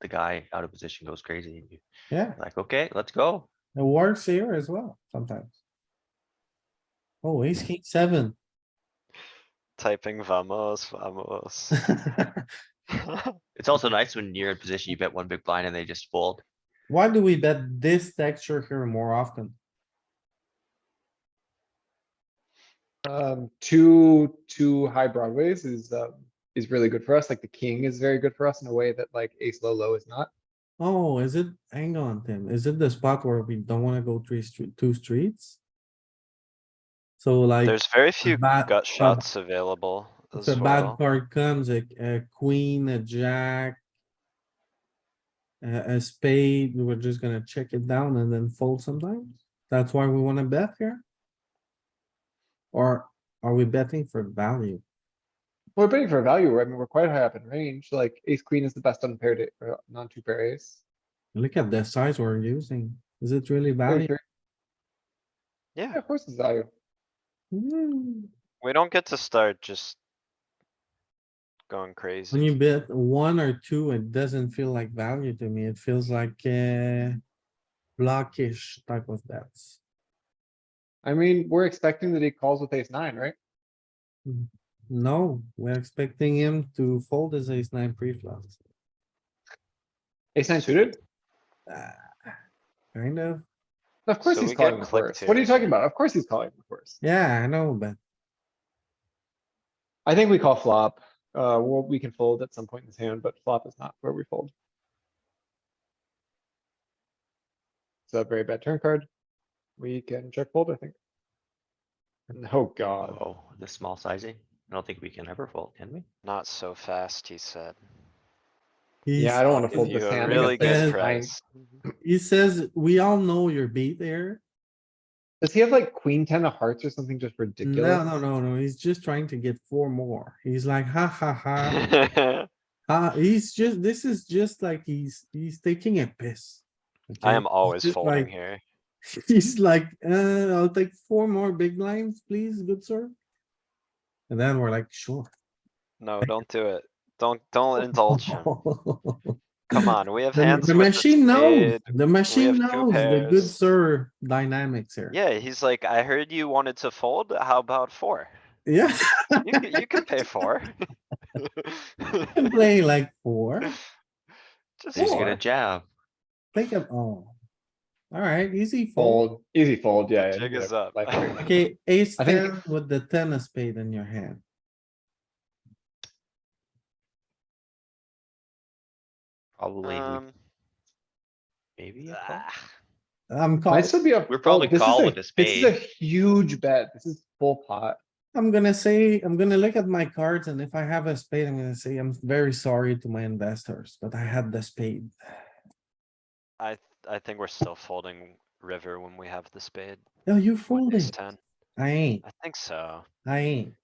the guy out of position goes crazy. and you're Yeah, Like, okay, let's go. it works here as well sometimes. Oh, ace king seven. Typing vamos, vamos. It's also nice when you're in position, you bet one big blind and they just fold. Why do we bet this texture here more often? Um, two, two high broadways is, uh, is really good for us. Like the king is very good for us in a way that like ace low, low is not. Oh, is it, hang on, Tim, is it the spot where we don't wanna go three street, two streets? So like. There's very few bad- gut a- shots available If as a bad well. card comes, a, a queen, a jack. A, a spade, we're just gonna check it down and then fold sometimes. That's why we wanna bet here? Or are we betting for value? We're betting for value. I mean, we're quite high up in range. Like ace queen is the best unpaired, a- or non-two pair ace. Look at the size we're using. Is it really Very value? fair. Yeah, Yeah, of course it's value. Hmm, we don't get to start just going crazy. When you bet one or two, it doesn't feel like value to me. It feels like, uh. Blockish type of bets. I mean, we're expecting that he calls with ace nine, right? No, we're expecting him to fold his ace nine pre-flop. Ace nine suited? Ah, Kind of, Of course So he's we get calling with clipped worse. What are you here. talking about? Of course he's calling with worse. yeah, I know, but I think we call flop. Uh, well, we can fold at some point in this hand, but flop is not where we fold. It's a very bad turn card. We can check fold, I think. And- Oh, god. Oh, the small sizing. I don't think we can ever fold, can we? Not so fast, he said. he, Yeah, I don't wanna Give fold you this a hand. really against good ace nine. price. he says, we all know you're beat there. Does he have like queen ten of hearts or something just No, ridiculous? no, no, no, he's just trying to get four more. He's like, ha, ha, ha. Ah, he's just, this is just like he's, he's taking a piss. I okay? am always just folding like- here. He's like, uh, I'll take four more big lines, please, good sir. And then we're like, sure. No, don't do it. Don't, don't indulge him. Come on, we have The- hands The with the machine knows, spade. the machine have two knows the good pairs. sir dynamics here. Yeah, he's like, I heard you wanted to fold. How about four? Yeah, You can, you can pay four. I'm playing like four, Just He's gonna four. jab. think of, oh. Alright, easy fold. Fold, easy fold, yeah. yeah, Jig yeah, is up. like- Okay, ace I think- ten with the ten of spade in your hand. Probably, we- Um, maybe. a call? ah, I'm Might calling, still be a. We're fold. probably This is a- calling with a This is a spade. huge bet. This is full pot. I'm gonna say, I'm gonna look at my cards and if I have a spade, I'm gonna say, I'm very sorry to my investors, but I had the spade. I, I think we're still folding river when we have the spade. No, you with ace folded. 10. I ain't, I think so. I ain't.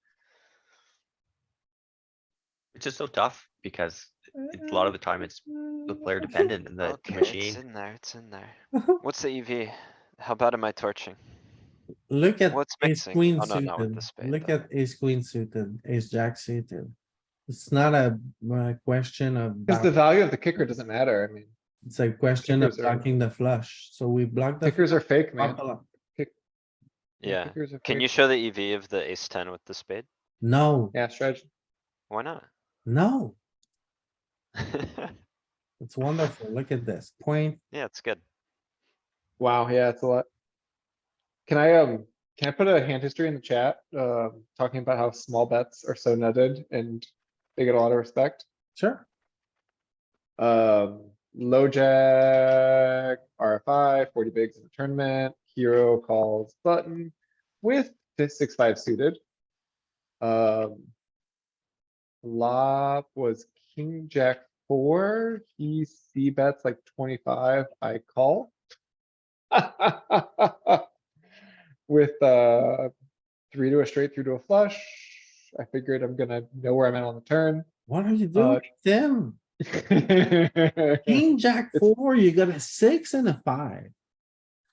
It's just so tough because a lot of the time it's the player Uh, dependent and the Okay, It's machine. in there, it's in there. What's the EV? How bad am I torching? Look at What's ace mixing? queen Oh, no, not with suited. the spade. Look though. at ace queen suited, ace jack suited. It's not a, uh question of, Cause the block- value of the kicker doesn't matter. I mean, it's a question of kickers are- blocking the flush. So we block the. kickers are fake, man. flop a lot. Yeah. Kickers are Can fake. you show the EV of the ace ten with the spade? No, Yeah, strategy. Why not? no, it's wonderful. Look at this point. Yeah, it's good. Wow, yeah, it's a lot. Can I, um, can I put a hand history in the chat, um, talking about how small bets are so nutted and they get a lot of respect? Sure. Um, low jack, RFI, forty bigs in the tournament, hero calls button with this six, five suited. Um. Flop was king, jack four, he C bets like twenty-five, I call. With, uh, three to a straight, three to a flush. I figured I'm gonna know where I'm at on the turn. What are you Uh, doing, Tim? It King jack it's- four, you got a six and a five.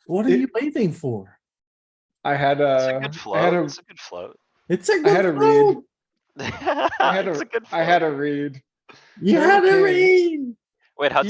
What are It- you waiting for? I had It's a, a good Uh, I had float. a, It's a good float. It's a I had a good read, fold. I I had a, I had a read. You had a Okay. read. Wait, how you- do